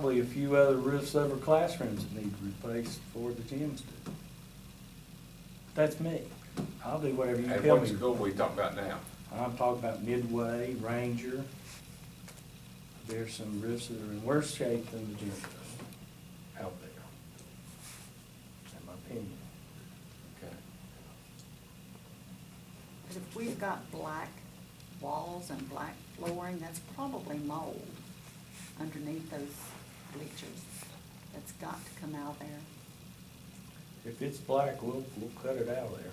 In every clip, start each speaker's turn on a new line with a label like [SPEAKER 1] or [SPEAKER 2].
[SPEAKER 1] probably a few other roofs over classrooms that need replaced for the gyms do. That's me. I'll do whatever you
[SPEAKER 2] And
[SPEAKER 1] tell
[SPEAKER 2] what
[SPEAKER 1] me.
[SPEAKER 2] school we talking about now?
[SPEAKER 1] I'm talking about Midway, Ranger. There's some roofs that are in worse shape than the gym does out there. In my opinion.
[SPEAKER 2] Okay.
[SPEAKER 3] Because if we've got black walls and black flooring, that's probably mold underneath those bleachers. That's got to come out there.
[SPEAKER 1] If it's black, we'll, we'll cut it out of there.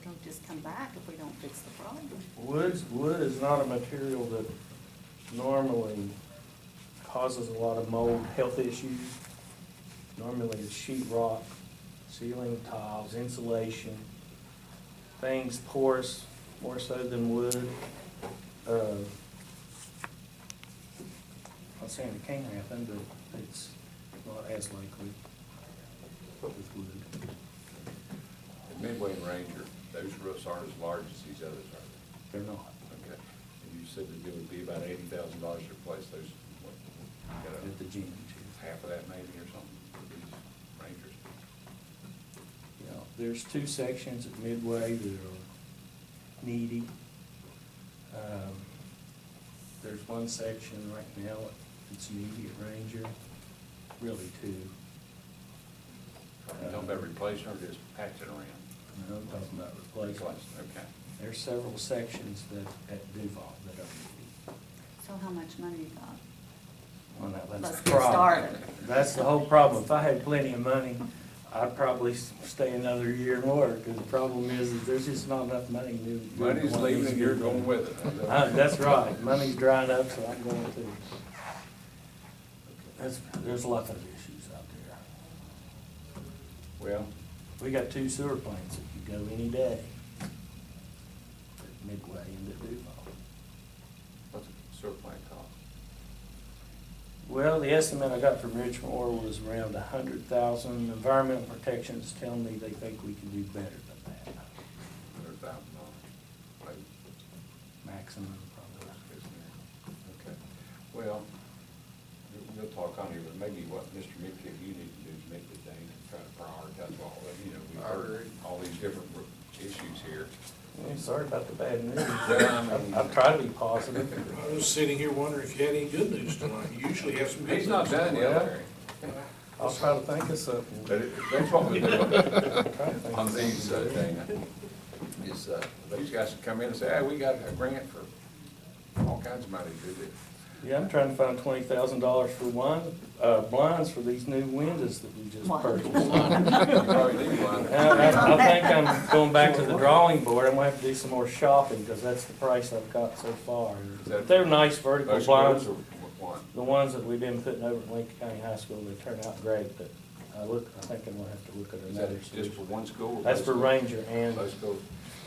[SPEAKER 3] It'll just come back if we don't fix the problem.
[SPEAKER 1] Woods, wood is not a material that normally causes a lot of mold health issues. Normally it's sheet rock, ceiling tiles, insulation, things porous more so than wood. Uh, Not saying it can't happen, but it's not as likely with wood.
[SPEAKER 2] And Midway and Ranger, those roofs aren't as large as these others are.
[SPEAKER 1] They're not.
[SPEAKER 2] Okay. And you said that it would be about eighty thousand dollars to replace those, what, you got a-
[SPEAKER 1] At the gym, too.
[SPEAKER 2] half of that maybe or something for these Rangers.
[SPEAKER 1] You know, there's two sections at Midway that are needy. Um, There's one section right now that's needy at Ranger, really two.
[SPEAKER 2] You talking about replacing or just patching around?
[SPEAKER 1] And I'm talking about replacement.
[SPEAKER 2] Okay.
[SPEAKER 1] There's several sections that, at Duval that are
[SPEAKER 3] So how much money you got?
[SPEAKER 1] needy. Well, now, that's
[SPEAKER 3] Let's
[SPEAKER 1] the
[SPEAKER 3] get
[SPEAKER 1] problem.
[SPEAKER 3] started.
[SPEAKER 1] That's the whole problem. If I had plenty of money, I'd probably s- stay another year more, because the problem is, is there's just not enough money to. do
[SPEAKER 2] Money's
[SPEAKER 1] what
[SPEAKER 2] leaving
[SPEAKER 1] needs to
[SPEAKER 2] and
[SPEAKER 1] be
[SPEAKER 2] you're
[SPEAKER 1] done.
[SPEAKER 2] going with it.
[SPEAKER 1] Uh, That's right, money's drying up, so I'm going to. That's, there's lots of issues out there.
[SPEAKER 2] Well,
[SPEAKER 1] We got two sewer plants that could go any day. At Midway and at Duval.
[SPEAKER 2] what's a sewer plant cost?
[SPEAKER 1] Well, the estimate I got from Rich Moore was around a hundred thousand. Environmental protection's telling me they think we can do better than that.
[SPEAKER 2] Hundred thousand dollars.
[SPEAKER 1] Maximum probably.
[SPEAKER 2] Okay. Well, we'll- we'll talk on it, but maybe what Mr. Midkiff, you need to do is meet with Dane and try to prioritize all of, you know, we've heard all these different issues here.
[SPEAKER 1] Yeah, Sorry about the bad news.
[SPEAKER 2] Well, I mean-
[SPEAKER 1] I'm trying to be positive.
[SPEAKER 4] I was sitting here wondering if you had any good news tonight. You usually have some good news.
[SPEAKER 2] He's not done yet,
[SPEAKER 1] Well-
[SPEAKER 2] Larry.
[SPEAKER 1] I'll try to think of something.
[SPEAKER 2] But it- that's what we do
[SPEAKER 1] Try to think of
[SPEAKER 2] on these, uh,
[SPEAKER 1] something.
[SPEAKER 2] Dana, is, uh, these guys come in and say, hey, we got a grant for all kinds of money to do
[SPEAKER 1] Yeah, I'm trying to find twenty thousand dollars for one, uh, blinds for these new windows that we just
[SPEAKER 3] What?
[SPEAKER 1] purchased.
[SPEAKER 2] this. You probably need one.
[SPEAKER 1] And I, I think I'm going back to the drawing board, I'm gonna have to do some more shopping, because that's the price I've got so far.
[SPEAKER 2] that-
[SPEAKER 1] They're nice vertical
[SPEAKER 2] Most
[SPEAKER 1] blinds,
[SPEAKER 2] schools are one.
[SPEAKER 1] the ones that we've been putting over at Lincoln County High School, they turn out great, but I look, I think I'm gonna have to look at
[SPEAKER 2] Is that
[SPEAKER 1] another
[SPEAKER 2] just for
[SPEAKER 1] solution.
[SPEAKER 2] one school? or
[SPEAKER 1] That's
[SPEAKER 2] both
[SPEAKER 1] for
[SPEAKER 2] schools?
[SPEAKER 1] Ranger and,
[SPEAKER 2] Both schools.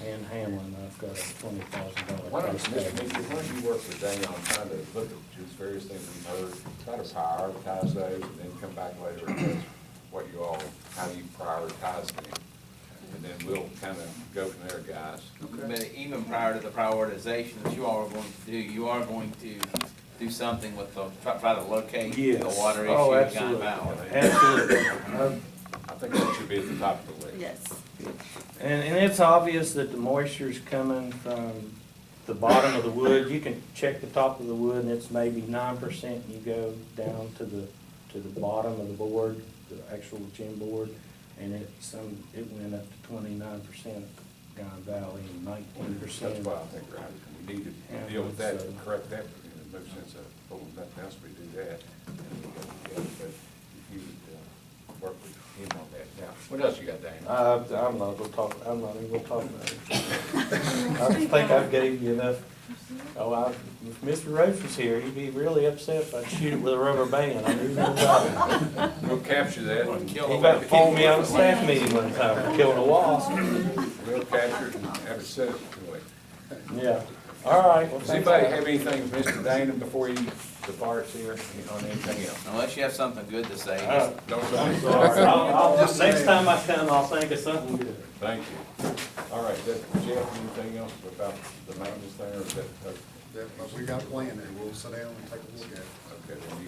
[SPEAKER 1] and Hamlin, I've got a twenty thousand
[SPEAKER 2] Why
[SPEAKER 1] dollar
[SPEAKER 2] don't,
[SPEAKER 1] price
[SPEAKER 2] Mr.
[SPEAKER 1] tag.
[SPEAKER 2] Meeker, why don't you work with Dana on trying to look at these various things we've heard, try to prioritize those, and then come back later and ask what you all, how you prioritize them. And then we'll kind of go from there, guys.
[SPEAKER 5] But even prior to the prioritization that you all are going to do, you are going to do something with the, try- try to locate the
[SPEAKER 1] Yes.
[SPEAKER 5] water issue
[SPEAKER 1] Oh,
[SPEAKER 5] in Guy
[SPEAKER 1] absolutely.
[SPEAKER 5] Valley.
[SPEAKER 1] Absolutely. I've-
[SPEAKER 2] I think that should be at the top of the list.
[SPEAKER 3] Yes.
[SPEAKER 1] And, and it's obvious that the moisture's coming from the bottom of the wood. You can check the top of the wood and it's maybe nine percent. You go down to the, to the bottom of the board, the actual gym board, and it, some, it went up to twenty-nine percent at Guyan Valley and nineteen
[SPEAKER 2] That's
[SPEAKER 1] percent.
[SPEAKER 2] why I think, right, we need to deal with that, and correct that, and no sense of holding nothing else, we do that. and we go together, But if you would uh, work with him on that. Now, what else you got, Dana?
[SPEAKER 1] Uh, I'm not gonna talk, I'm not even gonna talk about it. I think I've gave you enough. Oh, I, if Mr. Roach was here, he'd be really upset if I shoot it with a rubber band. I'm even about it.
[SPEAKER 2] We'll capture that, and
[SPEAKER 1] He about phoned me out of staff meeting one time for killing a wasp.
[SPEAKER 2] we'll capture it and have it set up to it.
[SPEAKER 1] Yeah, all right. well,
[SPEAKER 2] Does
[SPEAKER 1] thanks.
[SPEAKER 2] anybody have anything, Mr. Dana, before you depart here, on anything else?
[SPEAKER 5] Unless you have something good to say,
[SPEAKER 1] Uh,
[SPEAKER 5] just
[SPEAKER 2] Don't say anything.
[SPEAKER 1] I'll, I'll, next time I come, I'll think of something good.
[SPEAKER 2] Thank you. All right, that, Jeff, anything else about the maintenance thing, or is that, uh,
[SPEAKER 6] that, but we got a plan and we'll sit down and take a look at it.
[SPEAKER 2] Okay, then you